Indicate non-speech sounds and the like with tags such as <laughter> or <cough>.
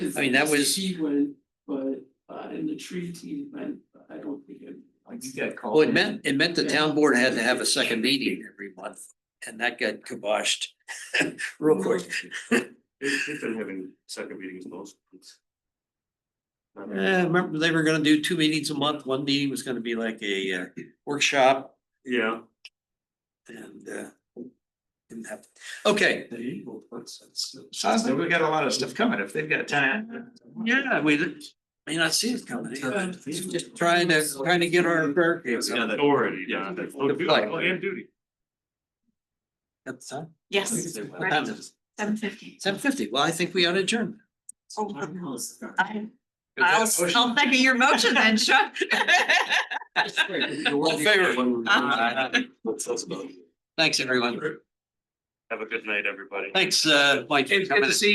'Cause I mean, that the was- She went, but uh in the treaty team, I I don't think it. You got called. Well, Oh, it meant, it meant the town board had to have a second meeting every month, and that got kiboshed <laughs> real quick. They've they've been having second meetings most. months. Not Uh, really. remember, they were gonna do two meetings a month, one meeting was gonna be like a uh, workshop Yeah. and uh. Didn't happen, okay, They equal, that's- that's- Sounds like we got a lot of stuff coming if they've got time. yeah, we may not see it coming, just trying to, trying to get our fair. It's another- Authority, yeah. that's- Oh, duty, oh, and duty. That's time, Yes, what time is it? seven fifty. Seven fifty, well, I think we ought to adjourn. Oh, I, I'll, I'll second your motion then, <laughs> Chuck. All in favor, Aye. thanks, everyone, Have a good night, everybody. thanks, uh, Mike. for coming.